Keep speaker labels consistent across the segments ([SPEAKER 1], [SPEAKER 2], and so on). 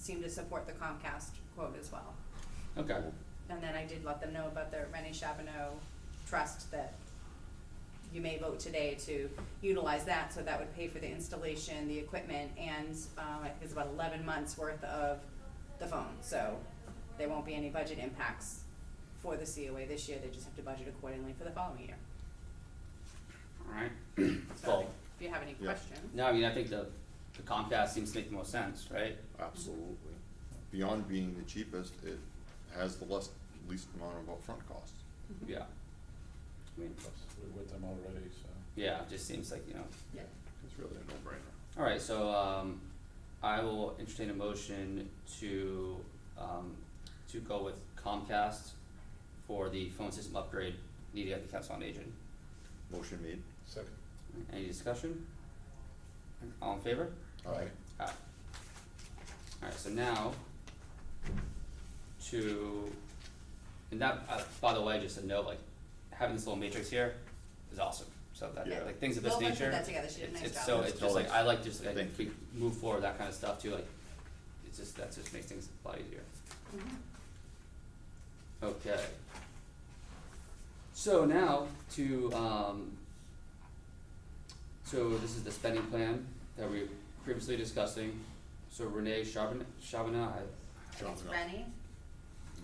[SPEAKER 1] seem to support the Comcast quote as well.
[SPEAKER 2] Okay,
[SPEAKER 1] And then I did let them know about the Rennie Chabonneau trust that you may vote today to utilize that, so that would pay for the installation, the equipment, and, um, I think it's about eleven months worth of the phone, so there won't be any budget impacts for the COA this year, they just have to budget accordingly for the following year.
[SPEAKER 2] alright.
[SPEAKER 1] So,
[SPEAKER 2] Well,
[SPEAKER 1] if you have any
[SPEAKER 3] Yeah.
[SPEAKER 1] questions,
[SPEAKER 2] no, I mean, I think the, the Comcast seems to make the most sense, right?
[SPEAKER 3] Absolutely. Beyond being the cheapest, it has the less, least amount of upfront costs.
[SPEAKER 2] Yeah. I mean,
[SPEAKER 4] Plus, we're with them already, so.
[SPEAKER 2] yeah, it just seems like, you know,
[SPEAKER 1] yeah,
[SPEAKER 3] It's really a no-brainer.
[SPEAKER 2] alright, so, um, I will entertain a motion to, um, to go with Comcast for the phone system upgrade needed at the council on aging.
[SPEAKER 3] Motion made.
[SPEAKER 4] Second.
[SPEAKER 2] Any discussion? All in favor?
[SPEAKER 3] Aye.
[SPEAKER 2] Alright. Alright, so now to, and that, uh, by the way, just a note, like, having this little matrix here is awesome. So that,
[SPEAKER 3] Yeah.
[SPEAKER 2] like, things of this
[SPEAKER 1] Lola put
[SPEAKER 2] nature,
[SPEAKER 1] that together. She did a
[SPEAKER 2] it's,
[SPEAKER 1] nice
[SPEAKER 2] it's
[SPEAKER 1] job.
[SPEAKER 2] so,
[SPEAKER 3] Yes,
[SPEAKER 2] it's just like,
[SPEAKER 3] Lola.
[SPEAKER 2] I like just, like,
[SPEAKER 3] Thank
[SPEAKER 2] we move forward, that kinda stuff too, like, it's just, that just makes things a lot easier.
[SPEAKER 1] Mm-hmm.
[SPEAKER 2] Okay. So now to, um, so this is the spending plan that we were previously discussing. So Renee Chabana, Chabana, I-
[SPEAKER 1] I think it's
[SPEAKER 3] Chabonneau.
[SPEAKER 1] Rennie,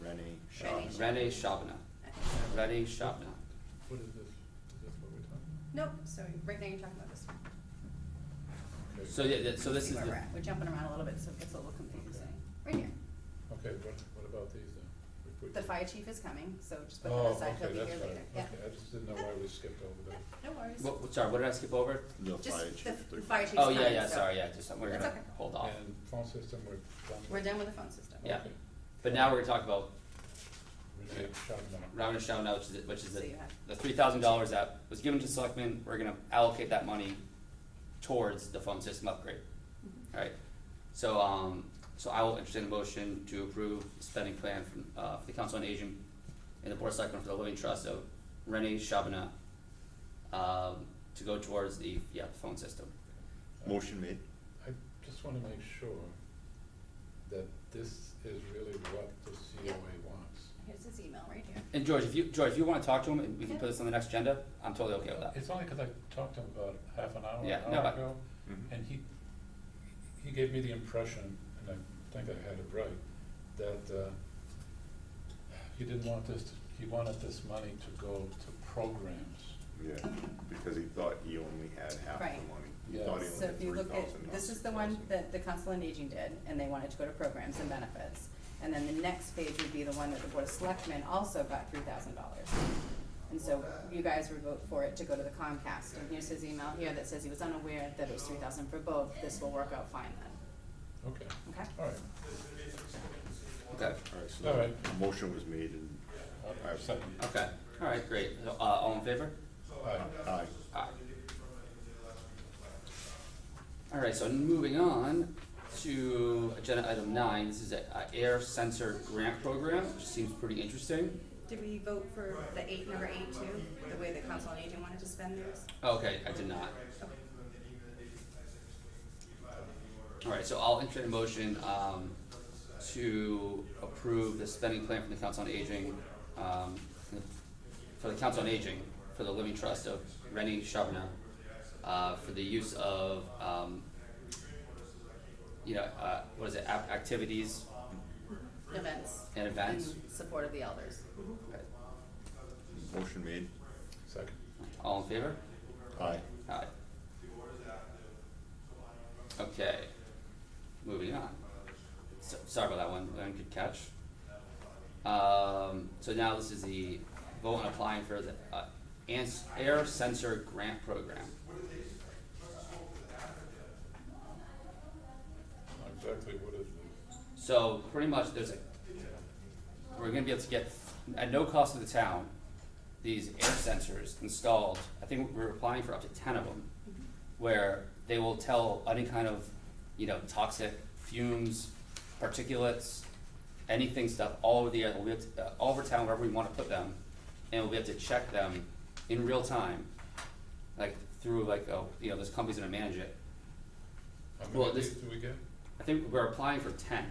[SPEAKER 3] Rennie, Shaw.
[SPEAKER 1] Rennie.
[SPEAKER 2] Renee Chabana,
[SPEAKER 1] I think so.
[SPEAKER 2] Renee Chabana.
[SPEAKER 4] What is this, is this what we're talking
[SPEAKER 1] Nope, so right now you're talking about this one.
[SPEAKER 4] about? Okay.
[SPEAKER 2] So yeah, that- so this
[SPEAKER 1] See
[SPEAKER 2] is
[SPEAKER 1] where we're
[SPEAKER 2] the,
[SPEAKER 1] at. We're jumping around a little bit, so it gets a little confusing. Right here,
[SPEAKER 4] Okay, what, what about these then? We put-
[SPEAKER 1] the fire chief is coming, so just put that aside, he'll be here
[SPEAKER 4] Oh, okay, that's
[SPEAKER 1] later,
[SPEAKER 4] right,
[SPEAKER 1] yeah,
[SPEAKER 4] okay, I just didn't know why we skipped over that.
[SPEAKER 1] no worries.
[SPEAKER 2] what, what- sorry, what did I skip over?
[SPEAKER 3] The
[SPEAKER 1] Just
[SPEAKER 3] fire
[SPEAKER 1] the
[SPEAKER 3] chief.
[SPEAKER 1] the fire chief's
[SPEAKER 2] Oh,
[SPEAKER 1] coming,
[SPEAKER 2] yeah, yeah,
[SPEAKER 1] so
[SPEAKER 2] sorry, yeah, just, we're
[SPEAKER 1] That's
[SPEAKER 2] gonna
[SPEAKER 1] okay.
[SPEAKER 2] hold off.
[SPEAKER 4] And phone system, we're done. with?
[SPEAKER 1] We're done with the phone system.
[SPEAKER 2] Yeah.
[SPEAKER 4] Okay.
[SPEAKER 2] But now we're gonna talk about
[SPEAKER 4] Renee Chavino.
[SPEAKER 2] Robin Chabana, which is, it- which is
[SPEAKER 1] So
[SPEAKER 2] the,
[SPEAKER 1] you have,
[SPEAKER 2] the three thousand dollars that was given to selectmen, we're gonna allocate that money towards the phone system upgrade.
[SPEAKER 1] Mm-hmm.
[SPEAKER 2] Alright, so, um, so I will entertain a motion to approve the spending plan from, uh, for the Council on Aging and the Board of Selectmen for the Living Trust of Renee Chabana, um, to go towards the, yeah, the phone system.
[SPEAKER 3] Motion made.
[SPEAKER 4] I just wanna make sure that this is really what the
[SPEAKER 1] Yeah.
[SPEAKER 4] COA wants.
[SPEAKER 1] here's his email right here.
[SPEAKER 2] And George, if you, George, if you wanna talk to him, and we can put this on the next agenda, I'm totally okay with that.
[SPEAKER 4] It's only because I talked to him about half an hour,
[SPEAKER 2] Yeah,
[SPEAKER 4] an
[SPEAKER 2] no,
[SPEAKER 4] hour
[SPEAKER 2] I- Mm-hmm.
[SPEAKER 4] ago, and he, he gave me the impression, and I think I had it right, that, uh, he didn't want this, he wanted this money to go to programs.
[SPEAKER 5] Yeah, because he thought he only had half the money.
[SPEAKER 1] Right.
[SPEAKER 5] He
[SPEAKER 4] Yeah.
[SPEAKER 5] thought he
[SPEAKER 1] So
[SPEAKER 5] only
[SPEAKER 1] if
[SPEAKER 5] had
[SPEAKER 1] you
[SPEAKER 5] three
[SPEAKER 1] look
[SPEAKER 5] thousand,
[SPEAKER 1] at,
[SPEAKER 5] not
[SPEAKER 1] this is
[SPEAKER 5] six
[SPEAKER 1] the one
[SPEAKER 5] thousand.
[SPEAKER 1] that the Council on Aging did, and they wanted to go to programs and benefits. And then the next page would be the one that the Board of Selectmen also got three thousand dollars. And so you guys would vote for it to go to the Comcast, and here's his email here that says he was unaware that it was three thousand for both, this will work out fine then,
[SPEAKER 4] Okay,
[SPEAKER 1] okay?
[SPEAKER 4] all right.
[SPEAKER 2] Okay,
[SPEAKER 3] Alright, so
[SPEAKER 4] All
[SPEAKER 3] the
[SPEAKER 4] right.
[SPEAKER 3] motion was made and,
[SPEAKER 4] All right, second.
[SPEAKER 2] okay, alright, great, uh, all in favor?
[SPEAKER 4] All right,
[SPEAKER 3] aye,
[SPEAKER 2] Aye. All right, so moving on to agenda item nine, this is a, a air sensor grant program, which seems pretty interesting.
[SPEAKER 1] Did we vote for the eight, number eight too, the way the council on aging wanted to spend theirs?
[SPEAKER 2] Okay, I did not. All right, so I'll entertain a motion, um, to approve the spending plan from the Council on Aging, um, for the Council on Aging, for the Living Trust of Rennie Chavna, uh, for the use of, um, you know, uh, what is it, app, activities
[SPEAKER 1] Events.
[SPEAKER 2] and events?
[SPEAKER 1] In support of the elders.
[SPEAKER 2] Okay.
[SPEAKER 3] motion made,
[SPEAKER 4] second.
[SPEAKER 2] All in favor?
[SPEAKER 3] aye.
[SPEAKER 2] Aye. Okay, moving on. So, sorry about that one, that one could catch. Um, so now this is the vote on applying for the, uh, ans- air sensor grant program.
[SPEAKER 4] Exactly what is it?
[SPEAKER 2] So pretty much there's a, we're gonna be able to get, at no cost to the town, these air sensors installed, I think we're applying for up to ten of them, where they will tell any kind of, you know, toxic fumes, particulates, anything stuff, all over the air, we'll be able to, uh, all over town, wherever we wanna put them, and we'll be able to check them in real time, like through like, oh, you know, there's companies that manage it.
[SPEAKER 4] How
[SPEAKER 2] Well,
[SPEAKER 4] many of
[SPEAKER 2] this-
[SPEAKER 4] these do we get?
[SPEAKER 2] I think we're applying for ten.